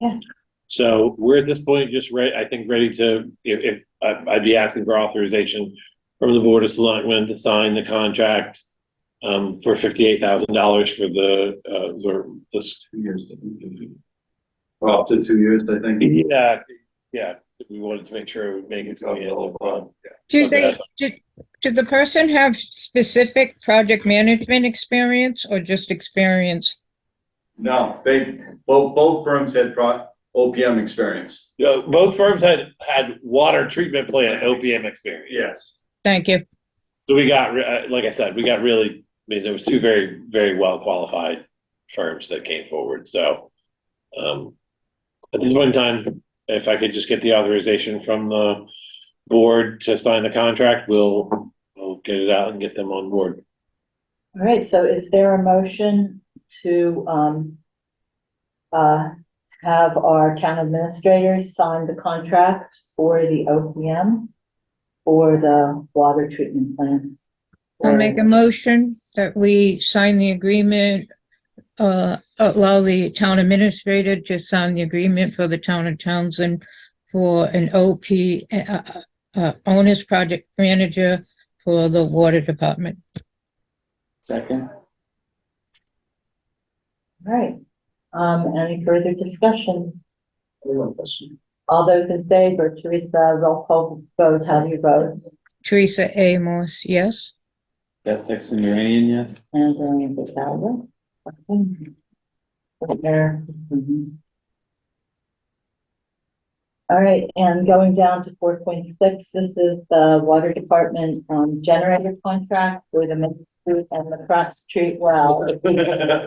Yeah. So we're at this point just ready, I think, ready to, if, if, I- I'd be asking for authorization from the Board of Selectmen to sign the contract um, for fifty-eight thousand dollars for the, uh, the, this, Two years. Well, Up to two years, I think. yeah, yeah, we wanted to make sure we make it to the end of the month. Do Okay, they, that's- do, did the person have specific project management experience or just experience? No, they, both, both firms had pro, OPM experience. Uh, both firms had, had water treatment plant OPM experience. Yes. Thank you. So we got, re- uh, like I said, we got really, I mean, there was two very, very well qualified firms that came forward, so. Um, at this point in time, if I could just get the authorization from the board to sign the contract, we'll, we'll get it out and get them on board. All right, so is there a motion to, um, uh, have our town administrators sign the contract for the OPM for the water treatment plants? I'll make a motion that we sign the agreement, uh, allow the town administrator to sign the agreement for the town of Townsend for an OP, uh, uh, uh, owner's project manager for the water department. Second. All right, um, any further discussion? All those in favor, Teresa, roll call vote, how do you vote? Teresa A. Morse, yes? That's Sexton Uranian, yes? And uh, Brian Vidalia. Okay. Right There. Mhm. All right, and going down to four point six, this is the water department um generator contract for the Main Street and the Cross Street well.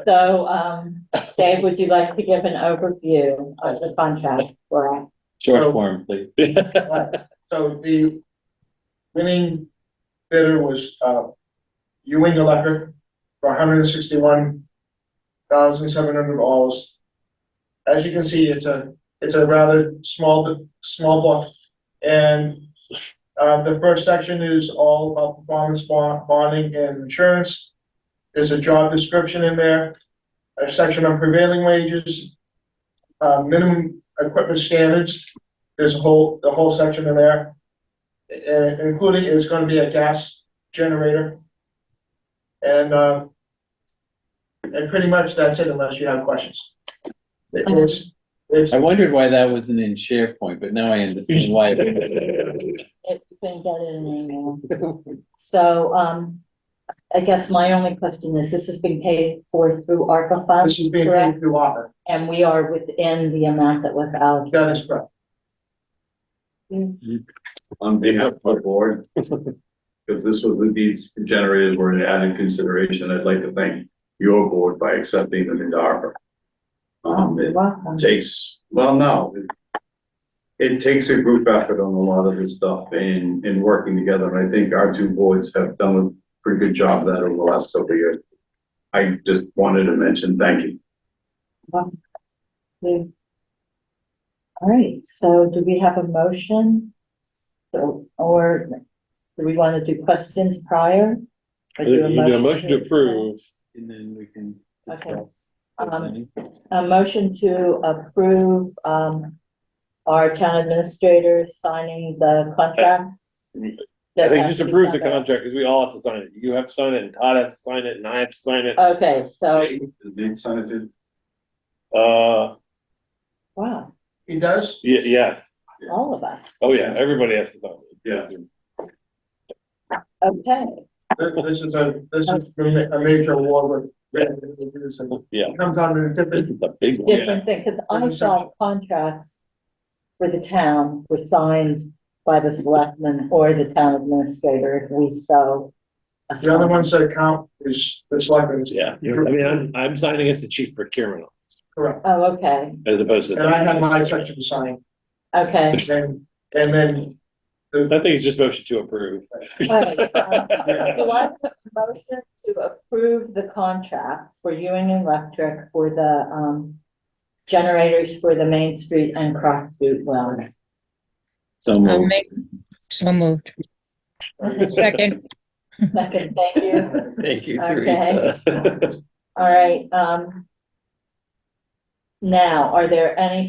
So um, Dave, would you like to give an overview of the contract for us? Short form, please. So the winning bidder was, uh, Ewing Electric for hundred and sixty-one thousand seven hundred dollars. As you can see, it's a, it's a rather small, small book. And, uh, the first section is all about performance bond, bonding and insurance. There's a job description in there, a section on prevailing wages, uh, minimum equipment standards, there's a whole, the whole section in there. And including is gonna be a gas generator. And, uh, and pretty much that's it unless you have questions. It- It's, it's, I wondered why that wasn't in SharePoint, but now I understand why. it was. If you can get it in email. So um, I guess my only question is, this has been paid for through ARPA funds, this is being correct? paid through offer. And we are within the amount that was allocated. That is correct. On behalf of the board, if this was the these generators were an added consideration, I'd like to thank your board by accepting them into ARPA. Um, it Welcome. takes, well, no. it- It takes a group effort on a lot of this stuff and, and working together, and I think our two boards have done a pretty good job of that over the last couple of years. I just wanted to mention, thank you. All right, so do we have a motion? So, or do we want to do questions prior? Or You do a motion to accept? approve, And then we can Okay, discuss. um, a motion to approve, um, our town administrator signing the contract. I think just approve the contract, because we all have to sign it, you have to sign it, and Todd has to sign it, and I have to sign it, Okay, so, Nate signed it. uh, wow, He does? ye- yes, all of us, oh yeah, everybody has to sign it. Yeah. okay. Th- This is a, this is a major award. with- with- Yeah. Comes out in a different, It's a big one. different thing, because I Different saw section. contracts contracts for the town were signed by the selectman or the town administrator if we so. the other ones that count is, it's like, it's Yeah, I mean, I'm, I'm signing as the chief procurement officer, correct. Oh, okay, as opposed to. And I had my section signed, okay. and, and then I think it's just motion to approve. Right, um, Oh, So I have a motion to approve the contract for Ewing Electric for the, um, generators for the Main Street and Cross Street well. So I'll moved. make, so moved. Second, Second, thank you. Thank you, okay. Teresa. All right, um, now, are there any